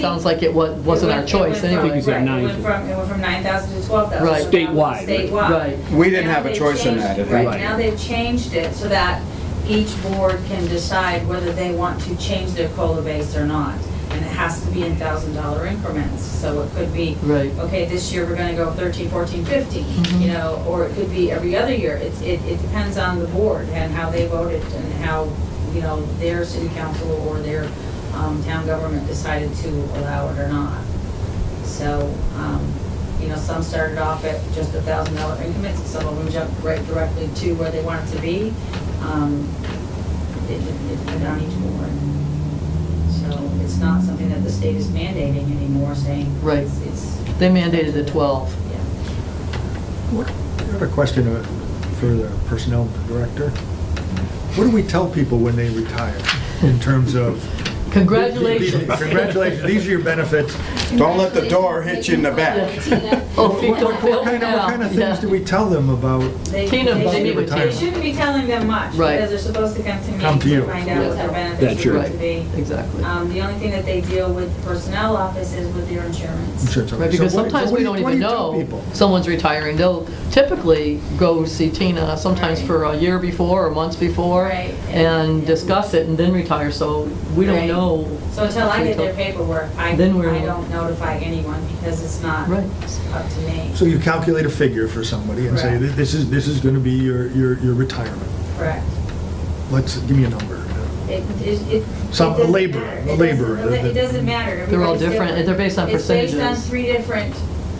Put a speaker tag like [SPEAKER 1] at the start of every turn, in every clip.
[SPEAKER 1] Sounds like it wa- wasn't our choice
[SPEAKER 2] It went
[SPEAKER 1] anyway.
[SPEAKER 2] from-
[SPEAKER 3] Right,
[SPEAKER 2] It went from, it went from 9,000 to 12,000.
[SPEAKER 1] Right.
[SPEAKER 2] so that was
[SPEAKER 3] Statewide.
[SPEAKER 1] Right.
[SPEAKER 2] Statewide.
[SPEAKER 4] We didn't
[SPEAKER 2] Now
[SPEAKER 4] have a
[SPEAKER 2] they've
[SPEAKER 4] choice in
[SPEAKER 2] changed-
[SPEAKER 4] that at that
[SPEAKER 2] Right,
[SPEAKER 3] time.
[SPEAKER 2] now they've changed it so that each board can decide whether they want to change their COLA base or not. And it has to be in $1,000 increments, so it could be,
[SPEAKER 1] Right.
[SPEAKER 2] okay, this year we're gonna go 13, 14, 15, you know, or it could be every other year. It's, it, it depends on the board and how they voted and how, you know, their city council or their um, town government decided to allow it or not. So, um, you know, some started off at just a thousand dollar increments, and some of them jumped right directly to where they wanted to be. Um, It, it, it went on each board. So it's not something that the state is mandating anymore, saying.
[SPEAKER 1] Right.
[SPEAKER 2] It's, it's,
[SPEAKER 1] They mandated the 12.
[SPEAKER 2] yeah.
[SPEAKER 5] What- I have a question uh, for the personnel director. What do we tell people when they retire in terms of?
[SPEAKER 1] Congratulations.
[SPEAKER 5] Congratulations, these are your benefits.
[SPEAKER 4] Don't let the door hit you in the back.
[SPEAKER 1] Oh, feet
[SPEAKER 5] What
[SPEAKER 1] don't
[SPEAKER 5] what
[SPEAKER 1] feel
[SPEAKER 5] kind of,
[SPEAKER 1] now.
[SPEAKER 5] what kind of
[SPEAKER 1] Yeah.
[SPEAKER 5] things do we tell them about?
[SPEAKER 2] They-
[SPEAKER 1] Tina,
[SPEAKER 2] they
[SPEAKER 1] but
[SPEAKER 2] shouldn't-
[SPEAKER 1] they would
[SPEAKER 2] They
[SPEAKER 1] tell.
[SPEAKER 2] shouldn't be telling them much,
[SPEAKER 1] Right.
[SPEAKER 2] because they're supposed to come to me.
[SPEAKER 5] Come to you.
[SPEAKER 2] Find out
[SPEAKER 1] Yeah.
[SPEAKER 2] what their
[SPEAKER 3] That's
[SPEAKER 2] benefits are
[SPEAKER 3] your-
[SPEAKER 2] going to
[SPEAKER 1] Right,
[SPEAKER 2] be.
[SPEAKER 1] exactly.
[SPEAKER 2] Um, the only thing that they deal with the personnel office is with their insurance.
[SPEAKER 5] Sure, so-
[SPEAKER 1] Right,
[SPEAKER 5] so
[SPEAKER 1] because
[SPEAKER 5] what- so
[SPEAKER 1] sometimes
[SPEAKER 5] what
[SPEAKER 1] we
[SPEAKER 5] do you-
[SPEAKER 1] don't
[SPEAKER 5] what do
[SPEAKER 1] even
[SPEAKER 5] you tell
[SPEAKER 1] know
[SPEAKER 5] people?
[SPEAKER 1] someone's retiring. They'll typically go see Tina sometimes
[SPEAKER 2] Right.
[SPEAKER 1] for a year before or months before
[SPEAKER 2] Right.
[SPEAKER 1] and discuss it and then retire, so we don't
[SPEAKER 2] Right.
[SPEAKER 1] know.
[SPEAKER 2] So until I get their paperwork, I, I
[SPEAKER 1] Then we're-
[SPEAKER 2] don't notify anyone because it's not
[SPEAKER 1] Right.
[SPEAKER 2] up to me.
[SPEAKER 5] So you calculate a figure for somebody and say,
[SPEAKER 2] Correct.
[SPEAKER 5] this is, this is going to be your, your your retirement.
[SPEAKER 2] Correct.
[SPEAKER 5] Let's, give me a number.
[SPEAKER 2] It, it, it.
[SPEAKER 5] Some-
[SPEAKER 2] it doesn't
[SPEAKER 5] labor,
[SPEAKER 2] matter.
[SPEAKER 5] the
[SPEAKER 2] It doesn't-
[SPEAKER 5] labor,
[SPEAKER 2] It doesn't-
[SPEAKER 5] the-
[SPEAKER 2] it doesn't matter.
[SPEAKER 1] They're all
[SPEAKER 2] Everybody's
[SPEAKER 1] different. They're based on
[SPEAKER 2] It's based
[SPEAKER 1] percentages.
[SPEAKER 2] on three different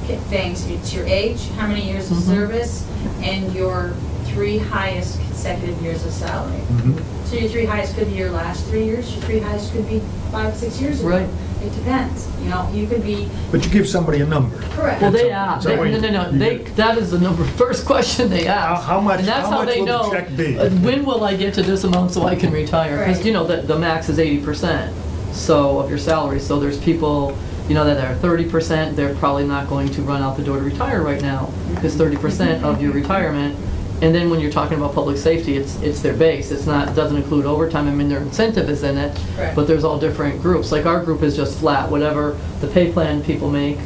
[SPEAKER 2] ki- things. It's your age, how many years of
[SPEAKER 1] Mhm.
[SPEAKER 2] service, and your three highest consecutive years of salary.
[SPEAKER 1] Mm-hmm.
[SPEAKER 5] Mhm.
[SPEAKER 2] So your three highest could be your last three years, your three highest could be five, six years ago.
[SPEAKER 1] Right.
[SPEAKER 2] It depends, you know, you could be,
[SPEAKER 5] But you give somebody a number.
[SPEAKER 2] correct.
[SPEAKER 1] Well, they
[SPEAKER 5] So-
[SPEAKER 1] ask,
[SPEAKER 5] so
[SPEAKER 1] they-
[SPEAKER 5] wait,
[SPEAKER 1] no, no, no,
[SPEAKER 5] you
[SPEAKER 1] they,
[SPEAKER 5] get-
[SPEAKER 1] that is the number, first question they ask.
[SPEAKER 5] How- how much-
[SPEAKER 1] And that's
[SPEAKER 5] how much
[SPEAKER 1] they
[SPEAKER 5] will the
[SPEAKER 1] know,
[SPEAKER 5] check be?
[SPEAKER 1] uh, When will I get to this amount so I can retire? Because,
[SPEAKER 2] Right.
[SPEAKER 1] you know, the, the max is eighty percent, so, of your salary, so there's people, you know, that are thirty percent, they're probably not going to run out the door to retire right now, because thirty percent of your retirement, and then when you're talking about public safety, it's, it's their base, it's not, doesn't include overtime, I mean, their incentive is in it,
[SPEAKER 2] Correct.
[SPEAKER 1] but there's all different groups, like our group is just flat, whatever the pay plan people make,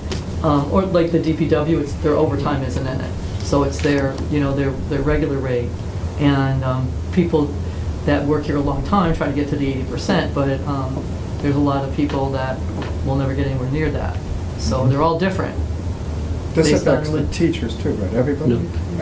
[SPEAKER 1] um, or like the DPW, it's, their overtime isn't in it. So it's their, you know, their, their regular rate. And, um, people that work here a long time try to get to the eighty percent, but, um, there's a lot of people that will never get anywhere near that. So they're all different.
[SPEAKER 4] This
[SPEAKER 1] Based on
[SPEAKER 4] affects the
[SPEAKER 1] what-
[SPEAKER 4] teachers too, right? Everybody?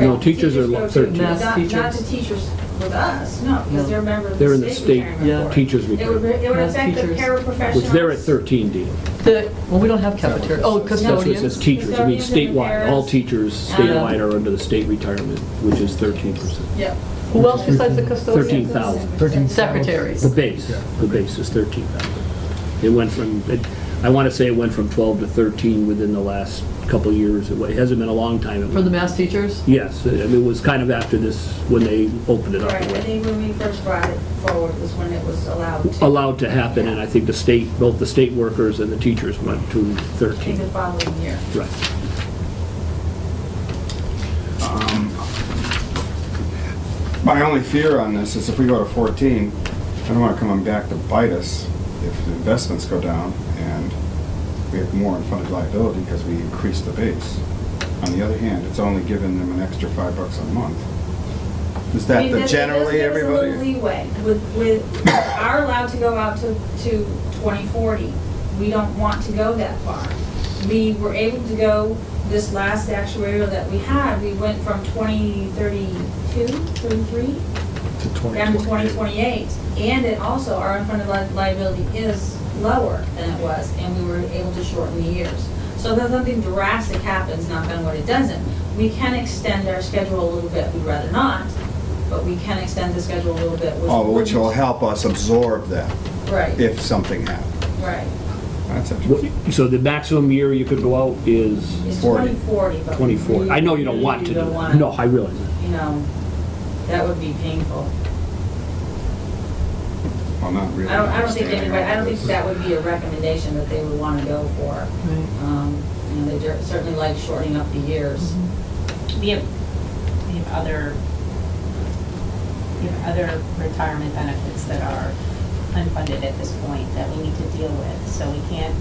[SPEAKER 3] No, no, teachers are
[SPEAKER 2] go
[SPEAKER 3] like
[SPEAKER 2] to-
[SPEAKER 3] 13.
[SPEAKER 1] Mass
[SPEAKER 2] Not, not the
[SPEAKER 1] teachers.
[SPEAKER 2] teachers with us, no,
[SPEAKER 1] No.
[SPEAKER 2] because they're members of
[SPEAKER 3] They're in
[SPEAKER 2] the
[SPEAKER 3] the
[SPEAKER 2] state
[SPEAKER 3] state
[SPEAKER 1] Yeah.
[SPEAKER 2] retirement board.
[SPEAKER 3] teachers
[SPEAKER 2] It would,
[SPEAKER 3] retirement,
[SPEAKER 2] it would
[SPEAKER 1] Mass
[SPEAKER 2] affect the
[SPEAKER 1] teachers.
[SPEAKER 2] paraprofessionals.
[SPEAKER 3] which they're at 13, Dina.
[SPEAKER 1] The, well, we don't have cafeteria, oh,
[SPEAKER 4] That's
[SPEAKER 3] That's what it says,
[SPEAKER 1] custodians.
[SPEAKER 3] teachers, I mean
[SPEAKER 2] Custodians and
[SPEAKER 3] statewide, all
[SPEAKER 2] preparers.
[SPEAKER 3] teachers statewide are under the state retirement, which is 13%.
[SPEAKER 2] Yep.
[SPEAKER 1] Who else besides the custodians?
[SPEAKER 3] 13,000.
[SPEAKER 5] 13,000.
[SPEAKER 1] Secretaries.
[SPEAKER 3] The base, the base is 13,000. It went from, it- I want to say it went from 12 to 13 within the last couple of years. It wa- it hasn't been a long time. It
[SPEAKER 1] For the
[SPEAKER 3] was-
[SPEAKER 1] mass teachers?
[SPEAKER 3] Yes, I mean, it was kind of after this, when they opened it up.
[SPEAKER 2] Right, I think when we first brought it forward was when it was allowed to.
[SPEAKER 3] Allowed to happen, and I think the state, both the state workers and the teachers went to
[SPEAKER 2] I think
[SPEAKER 3] 13.
[SPEAKER 2] the following year.
[SPEAKER 3] Right.
[SPEAKER 4] My only fear on this is if we go to 14, I don't want it coming back to bite us if the investments go down and we have more in funded liability because we increase the base. On the other hand, it's only giving them an extra five bucks a month. Is
[SPEAKER 2] I
[SPEAKER 4] that
[SPEAKER 2] mean,
[SPEAKER 4] the
[SPEAKER 2] that's-
[SPEAKER 4] generally
[SPEAKER 2] that's- that's a little
[SPEAKER 4] everybody?
[SPEAKER 2] leeway. With, with, are allowed to go out to, to 2040. We don't want to go that far. We were able to go, this last actuarial that we had, we went from 2032, 33?
[SPEAKER 5] To 20,
[SPEAKER 2] down to
[SPEAKER 5] 28.
[SPEAKER 2] 2028. And it also, our unfunded li- liability is lower than it was, and we were able to shorten the years. So if something drastic happens, knock on wood, it doesn't, we can extend our schedule a little bit, we'd rather not, but we can extend the schedule a little bit.
[SPEAKER 4] Oh, which will
[SPEAKER 2] wouldn't-
[SPEAKER 4] help us absorb that
[SPEAKER 2] Right,
[SPEAKER 4] if something happened.
[SPEAKER 2] right.
[SPEAKER 4] That's
[SPEAKER 3] What-
[SPEAKER 4] interesting.
[SPEAKER 3] So the maximum year you could go out is
[SPEAKER 2] It's
[SPEAKER 4] 40.
[SPEAKER 2] 2040, but. we
[SPEAKER 3] 24. I know you don't
[SPEAKER 2] really
[SPEAKER 3] want to do
[SPEAKER 2] don't
[SPEAKER 3] that.
[SPEAKER 2] wanna-
[SPEAKER 3] No, I realize that.
[SPEAKER 2] You know, that would be painful.
[SPEAKER 4] Well, not really.
[SPEAKER 2] I don't, I don't think
[SPEAKER 4] understanding
[SPEAKER 2] anybody, I
[SPEAKER 4] all
[SPEAKER 2] don't think
[SPEAKER 4] this.
[SPEAKER 2] that would be a recommendation that they would want to go for.
[SPEAKER 1] Right.
[SPEAKER 2] Um, You know, they cer- certainly like shortening up the years.
[SPEAKER 6] We have, we have other, we have other retirement benefits that are unfunded at this point that we need to deal with. So we can't